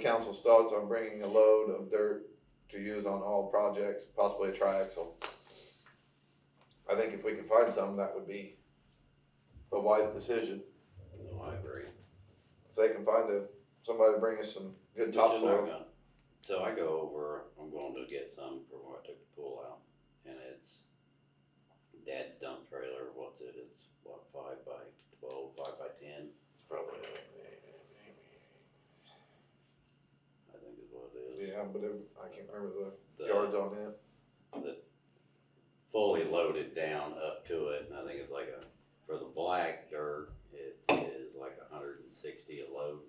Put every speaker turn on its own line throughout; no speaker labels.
council's thoughts on bringing a load of dirt to use on all projects, possibly a triaxle. I think if we could find some, that would be a wise decision.
No, I agree.
If they can find a, somebody to bring us some good
It's in our
topsoil.
gun. So I go over, I'm going to get some for what I took the pool out, and it's dad's dump trailer, what's it, it's what, five by twelve, five by ten,
Probably.
I think is what it is.
Yeah, but it- I can't remember the yards
The
on it.
fully loaded down up to it, and I think it's like a, for the black dirt, it is like a hundred and sixty a load.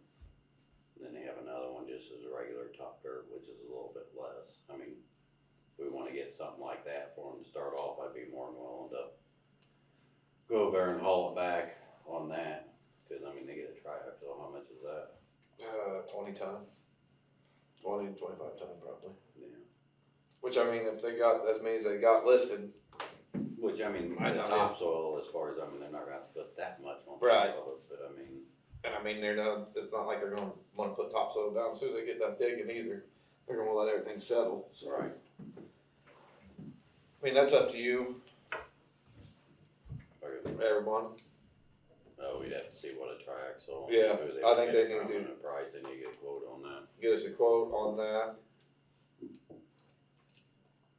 And then they have another one just as a regular top dirt, which is a little bit less, I mean, if we wanna get something like that for them to start off, I'd be more than willing to go over there and haul it back on that, cause I mean, they get a triaxle, how much is that?
Uh, twenty ton. Twenty to twenty-five ton probably.
Yeah.
Which I mean, if they got as many as they got listed,
Which, I mean,
I
the
know.
topsoil, as far as, I mean, they're not gonna have to put that much on top
Right.
of it, but I mean,
And I mean, they're not. It's not like they're going to want to put topsoil down as soon as they get done digging either. They're going to let everything settle. So
right.
I mean, that's up to you,
Or-
everyone.
Oh, we'd have to see what a triaxle.
Yeah,
who
I
would
think
get
they need
from
to-
and the Price, they need to get a quote on that.
Get us a quote on that.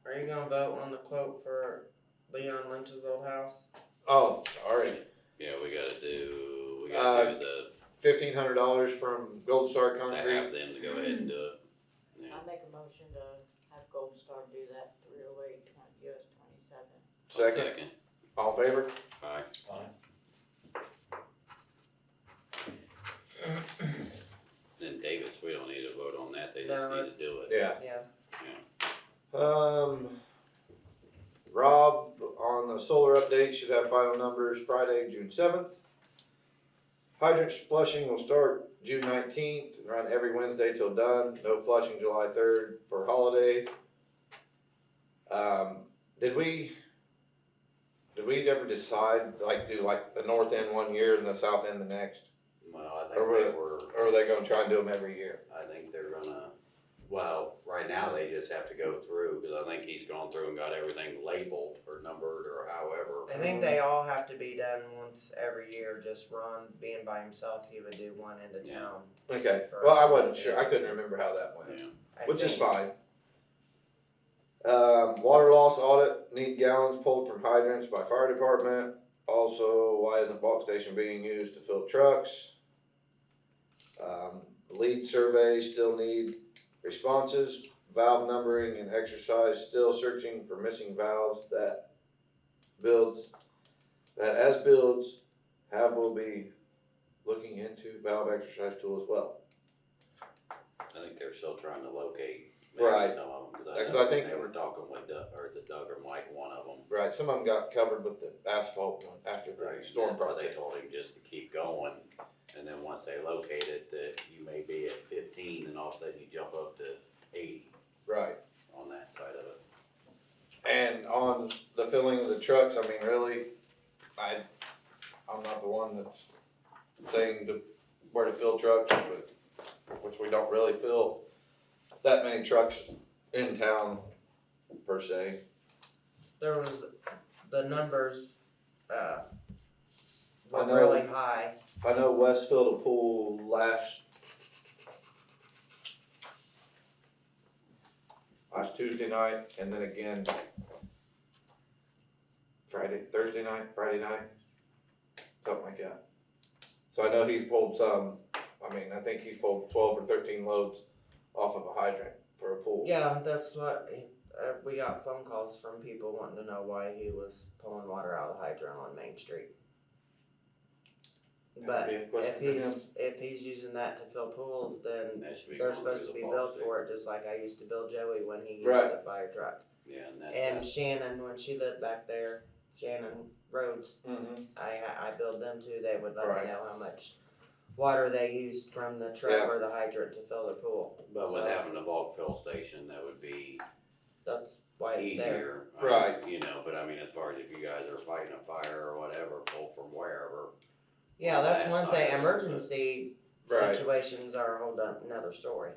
Are you gonna vote on the quote for Leon Lynch's old house?
Oh, sorry.
Yeah, we gotta do, we
Uh,
gotta do the,
Fifteen hundred dollars from Gold Star
to
Concrete.
have them to go ahead and do it.
I make a motion to have Gold Star do that three oh eight twenty, US twenty-seven.
Second. All in favor.
Aye. Then Davis, we don't need to vote on that, they just need to do it.
Yeah.
Yeah.
Um. Rob on the solar update should have final numbers Friday, June seventh. Hydrant flushing will start June nineteenth, run every Wednesday till done, no flushing July third for holiday. Um, did we, did we ever decide, like, do like the north end one year and the south end the next?
Well, I think
Or
they were,
Or are they gonna try and do them every year?
I think they're gonna, well, right now they just have to go through, cause I think he's gone through and got everything labeled or numbered or however.
I think they all have to be done once every year, just Ron being by himself, he would do one end of
Yeah.
town.
Okay, well, I wasn't sure, I couldn't remember how that went.
Yeah.
I
which is
think.
fine. Um, water loss audit, need gallons pulled from hydrants by fire department. Also, why isn't bulk station being used to fill trucks? Um, lead survey, still need responses, valve numbering and exercise, still searching for missing valves that builds, that as builds, have will be looking into valve exercise tool as well.
I think they're still trying to locate
Right.
maybe some of them,
Yeah, 'cause
cause
I
I
think-
think they were talking with Doug, or the Doug or Mike, one of them.
Right, some of them got covered with the asphalt one after the storm
That's why They
project.
told him just to keep going, and then once they locate it, that you may be at fifteen, and all of a sudden you jump up to eighty
Right,
on that side of it.
and on the filling of the trucks, I mean, really, I, I'm not the one that's saying the, where to fill trucks, but, which we don't really fill that many trucks in town per se.
There was, the numbers, uh,
I
were
know.
really high.
I know West filled a pool last last Tuesday night, and then again Friday, Thursday night, Friday night, something like that. So I know he's pulled some. I mean, I think he's pulled twelve or thirteen loads off of a hydrant for a pool.
Yeah, that's what, uh, we got phone calls from people wanting to know why he was pulling water out of the hydrant on Main Street.
That would
But
be a question
if
for him.
he's, if he's using that to fill pools, then
And that should be
They're
going through
supposed to
the
be
bulk
built
station.
for it, just like I used to build Joey when he used
Right.
the fire truck.
Yeah, and that,
And
that,
Shannon, when she lived back there, Shannon Rhodes,
Mhm.
I I built them too. They would let
Right.
me know how much water they used from the truck
Yeah.
or the hydrant to fill the pool.
but with
so-
having a bulk fill station, that would be
That's why it's there.
easier. I mean,
Right.
You know, but I mean, as far as if you guys are fighting a fire or whatever, pull from wherever.
Yeah, that's
That
one thing.
side.
Emergency
Right.
situations are a whole done- another story.